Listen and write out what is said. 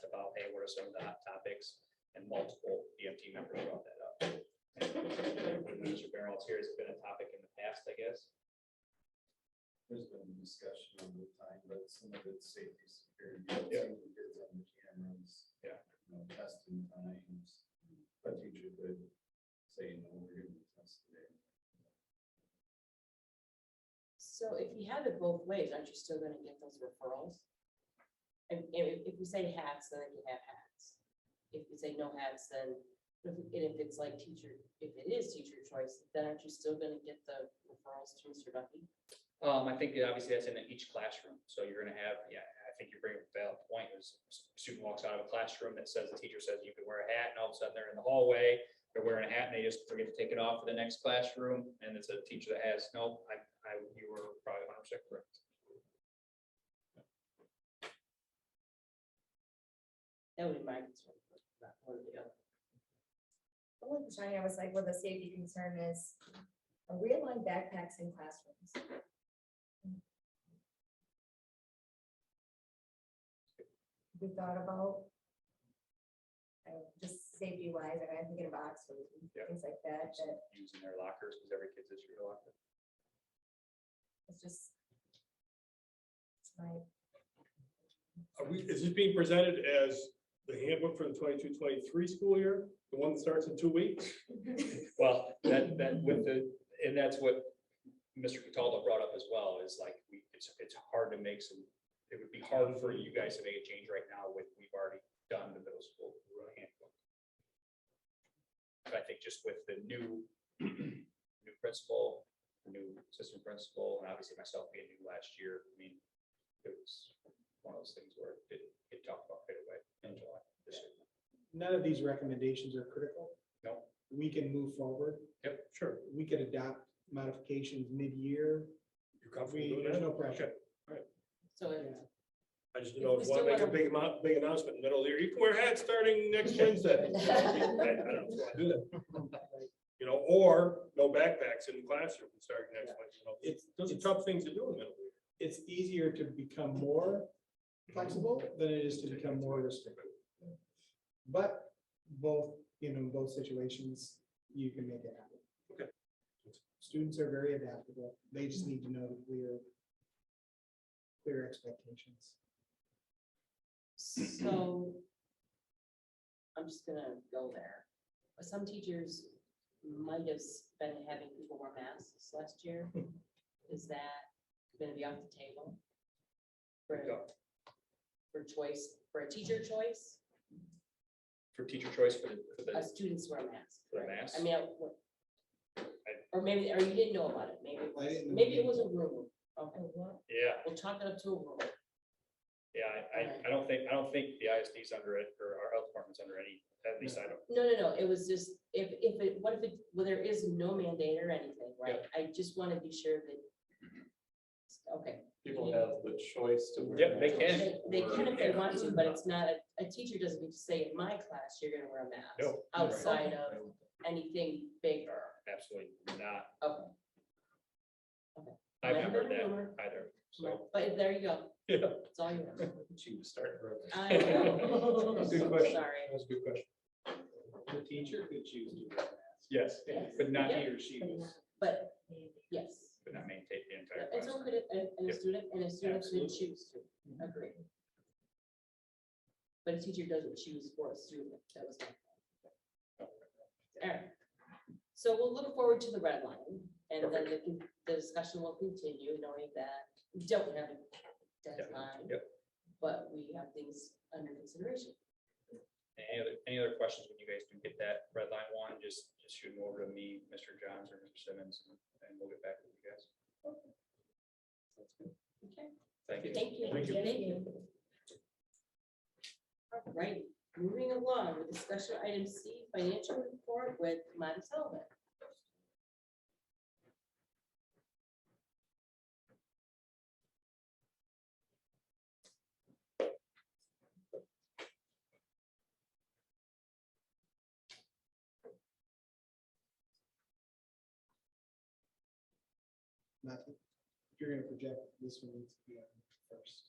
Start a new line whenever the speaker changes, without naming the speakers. were some of the hot topics, and multiple EMT members brought that up. When Mr. Barrels here, it's been a topic in the past, I guess.
There's been discussion over the time, but some of it's safety, security, seeing the kids on the cameras.
Yeah.
You know, testing times, a teacher could say, no, we're gonna test today.
So if you have it both ways, aren't you still gonna get those referrals? And if, if we say hats, then you have hats. If you say no hats, then, if- and if it's like teacher, if it is teacher choice, then aren't you still gonna get the referrals to Mr. Duffy?
Um, I think that obviously that's in each classroom, so you're gonna have, yeah, I think you bring up a valid point, is student walks out of a classroom that says, the teacher says you can wear a hat, and all of a sudden they're in the hallway, they're wearing a hat, and they just forget to take it off for the next classroom, and it's a teacher that has, no, I, I, you were probably hundred percent correct.
That would be my concern, but not one or the other.
The only question I had was like, well, the safety concern is, are we allowing backpacks in classrooms? We thought about. I mean, just safety wise, and I'm thinking of Oxford, and
Yeah.
things like that, that
Using their lockers, because every kid's issue a locker.
it's just. it's My
Are we, is this being presented as the handbook for the 22-23 school year, the one that starts in two weeks?
Well, that, that with the, and that's what Mr. Cataldo brought up as well, is like, we, it's, it's hard to make some, it would be hard for you guys to make a change right now with, we've already done the middle school handbook. But I think just with the new, new principal, new assistant principal, and obviously myself being new last year, I mean, it was one of those things where it didn't get talked about right away in July. this year.
none of these recommendations are critical.
No.
We can move forward.
Yep, sure.
We could adopt modifications mid-year.
You're comfortable
We,
doing that?
there's no pressure.
Okay.
So if
I just didn't know
If
if
we
you
still
want to make a
wanna-
big, amo- big announcement in the middle of the year, you can wear hats starting next Wednesday. I I don't know if I do that. You know, or no backpacks in the classroom starting next Wednesday. You know, It's, those are tough things to do in the middle of the year.
It's easier to become more flexible than it is to become more restrictive. But both, you know, in both situations, you can make it happen.
Okay.
Students are very adaptable. They just need to know that we're clear expectations.
So I'm just gonna go there. But Some teachers might have s- been having people wear masks last year. Is that gonna be off the table? For,
Go.
for choice, for a teacher choice,
For teacher choice for the, for the
a student's wear a mask.
For the
right?
mask?
I mean, I- or maybe, or you didn't know about it, maybe, it
I
was-
didn't know.
maybe it was a rumor. Okay,
oh, what?
Yeah,
we'll chalk it up to a rumor.
yeah, I- I, I don't think, I don't think the ISD's under it, or our health department's under any, at least I don't.
No, no, no, it was just, if, if it, what if it, well, there is no mandate or anything, right? I just want to be sure that. Okay.
People have the choice to. wear
Yep, they
masks
can.
They they can if they
or-
want to, but it's not, a- a teacher doesn't need to say, in my class, you're gonna wear a mask.
No.
Outside of anything bigger,
Absolutely not.
okay,
I've
Right.
never heard that either,
right.
so.
but there you go,
Yeah.
that's all you want.
She was starting. early.
I know.
Good question.
Sorry.
That's a good question.
The teacher could choose to wear masks.
Yes,
Yes.
but not,
Yeah.
He or she
But
was.
not
But,
maybe.
yes,
but not maintain the entire
it's
class.
okay to, and- and a
Yep.
student, and a student should
Absolutely.
choose
Mm-hmm.
to, agree. But a teacher doesn't choose for a student, that was my All right. So we'll look forward to the red line and then the, con- the discussion will continue knowing that we don't have a deadline.
yep.
But we have things under consideration.
Any other, any other questions when you guys do get that red line one, just, just shoot them over to me, Mr. Johns or Mr. Simmons, and and we'll get back with you guys.
Okay,
Thank you.
thank you.
Thank you.
All right, moving along with discussion item C, financial report with Madam Sullivan.
not, if you're gonna project this one needs to be on first.